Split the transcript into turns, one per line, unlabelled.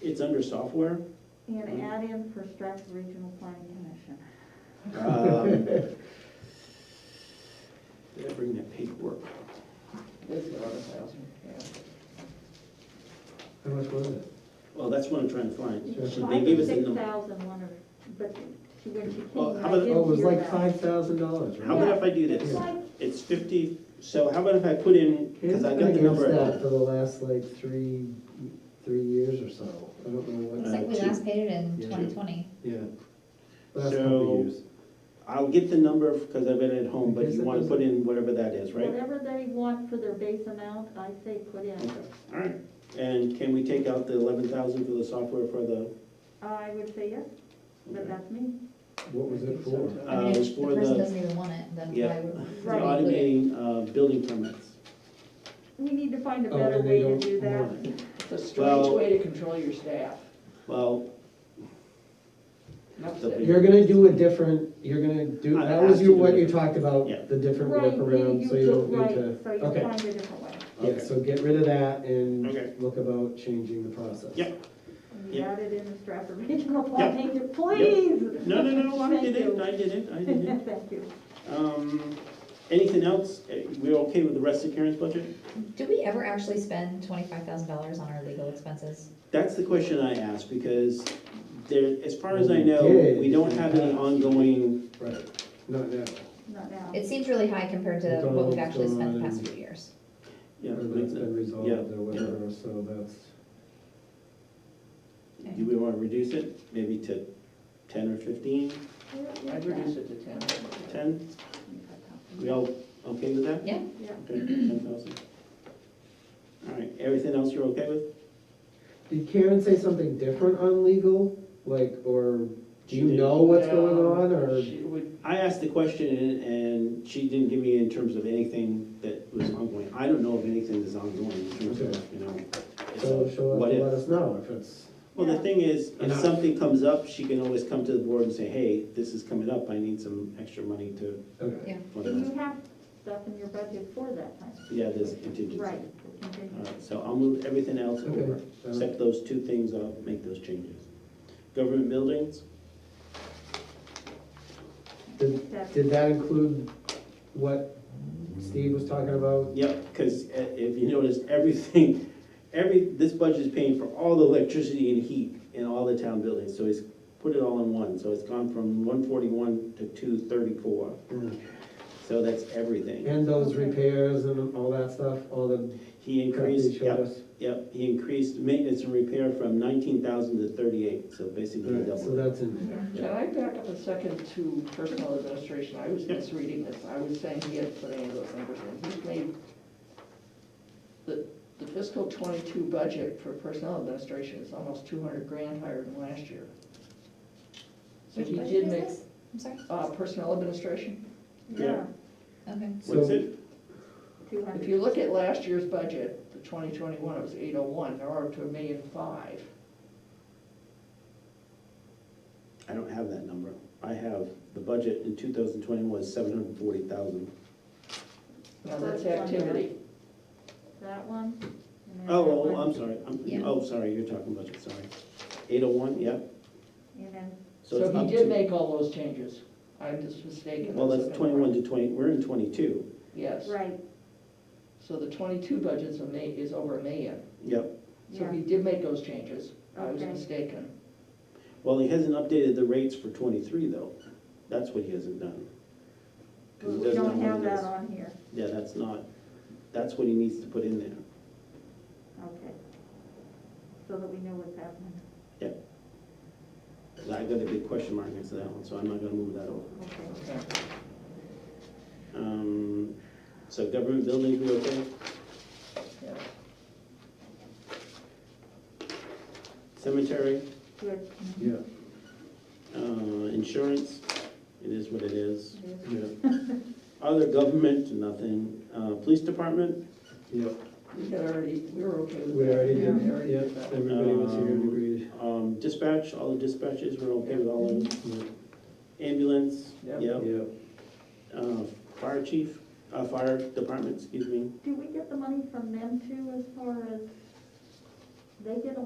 It's under software.
And add in for Stratford Regional Planning Commission.
Um, Did I bring that paperwork?
It's about a thousand, yeah.
How much was it?
Well, that's what I'm trying to find.
Sure.
They gave us the
Six
number.
thousand one or, but she, when she
Well,
came,
how
I
about-
didn't
Oh, it was
hear
like
that.
five thousand dollars, right?
How about if I do
It's
this?
like,
It's fifty, so how about if I put in, because I got the number.
It's been against that
at-
for the last like three, three years or so. I don't know what,
Uh,
Looks like we
two.
last paid it in
Yeah.
twenty twenty.
yeah. Last couple
So-
of years.
I'll get the number because I've been at home, but you want to put in whatever that is, right?
whatever they want for their base amount, I say put in.
Okay, all right. And can we take out the eleven thousand for the software for the?
I would say yes, but
okay.
that's me.
What was it for?
I
Uh,
mean,
it's
if the
for
person
the
doesn't even want it, then
Yeah.
why would we?
the
Right.
include it?
automating uh, building permits.
We need to find a
Oh,
better
and
way
they
to
don't
do that.
want it.
It's a strange
Well-
way to control your staff.
Well,
Enough
The
said.
big-
You're gonna do a different, you're gonna do,
uh, I
that was
asked
your,
you to
what
do
you
it.
talked about,
Yeah.
the different
Right, you-
workaround, so you
go-
don't need
right,
to.
So you
Okay.
find a different way.
Yeah, so get rid of that and
Okay.
look about changing the process.
Yep.
And You
Yeah.
added in the Stratford Regional Planning, please.
no, no, no, I
Thank
did
you.
it, I did it, I did it.
Thank you.
Um, anything else? Eh, We're okay with the rest of Karen's budget?
Did we ever actually spend twenty-five thousand dollars on our legal expenses?
That's the question I asked, because there, as far as I
We
know,
did.
we don't have any ongoing,
Right, not now.
Not now.
Um,
It seems really high compared to
It's all-
what we've
it's
actually spent
uh,
the
all
past
in-
few years.
yeah.
Or that's been resolved
yeah,
or whatever, so that's,
Do we wanna reduce it, maybe to ten or fifteen,
I'd reduce it to ten.
ten? We all okay with that?
Yeah,
Yeah.
Okay, ten thousand. All right, everything else you're okay with?
did Karen say something different on legal? Like, or do
She
you
did.
know what's
Yeah,
going on, or?
she would-
I asked the question and- and she didn't give me in terms of anything that was ongoing. I don't know of anything that's ongoing in terms of, you know, it's a
So she'll have
what
to
if.
let us know if it's,
Well, the
Yeah.
thing is, if
Enough.
something comes up, she can always come to the board and say, hey, this is coming up, I need some extra money to,
okay.
yeah.
And
whatever.
you have stuff in your budget for that time.
Yeah, there's contingency.
Mm-hmm. Right.
All right, so I'll move everything else
Okay.
over,
Uh,
except those two things, I'll make those changes. Government buildings,
Did,
That's-
did that include what Steve was talking about?
yep, because if you notice, everything, every, this budget is paying for all the electricity and heat in all the town buildings, so it's put it all in one, so it's gone from one forty-one to two thirty-four,
Hmm.
so that's everything.
And those
Okay.
repairs and all that stuff, all the
He
crap you
increased,
showed
yep,
us?
Yep, he increased maintenance and repair from nineteen thousand to thirty-eight, so basically
Alright, so
doubled. it.
that's in there.
Can I back up a second to personal administration? I was
Yep.
misreading this. I was saying he had put any of those numbers in. He made the, the fiscal twenty-two budget for personnel administration is almost two hundred grand higher than last year. So
Which
he
budget
did
is
make,
this? I'm sorry,
uh, personnel administration.
Yeah,
okay.
What is
So-
it?
two
If
hundred.
you look at last year's budget, the twenty twenty-one, it was eight oh one, now we're up to a million five.
I don't have that number. I have, the budget in two thousand twenty was seven hundred forty thousand.
Now, that's activity.
That one. and then
Oh,
that
oh,
one,
I'm sorry, I'm,
Yeah.
oh, sorry, you're talking budget, sorry. Eight oh one, yep,
And then,
so
So
it's
he
up
did
to,
make all those changes. I'm just mistaken.
well, that's
That's-
twenty-one to twenty, we're in twenty-two,
Yes,
right,
so the twenty-two budget's a ma, is over a million.
yep.
So
yeah,
he did make those changes. I was
Okay.
mistaken.
Well, he hasn't updated the rates for twenty-three though. That's what he hasn't done. 'Cause he
we
doesn't
don't
know
have
what it is.
that on here,
Yeah, that's not, that's what he needs to put in there.
okay. So that we know what's happening,
I got a big question mark next to that one, so I'm not gonna move that over.
okay.
Okay.
Um, so government buildings, we okay?
Yeah.
Cemetery,
Good.
Yeah,
uh, insurance, it is what it is.
Good.
yeah,
Other government, nothing. Uh, police department,
yeah,
We had already, we were okay with that.
We already did,
We already
yeah,
did that.
everybody was here and agreed.
um, dispatch, all the dispatches, we're okay with all of them.
Yeah,
Ambulance,
Yep.
Um, yep.
Yeah,
Uh, fire chief, uh, fire department, excuse me.
Do we get the money from them too as far as, they get a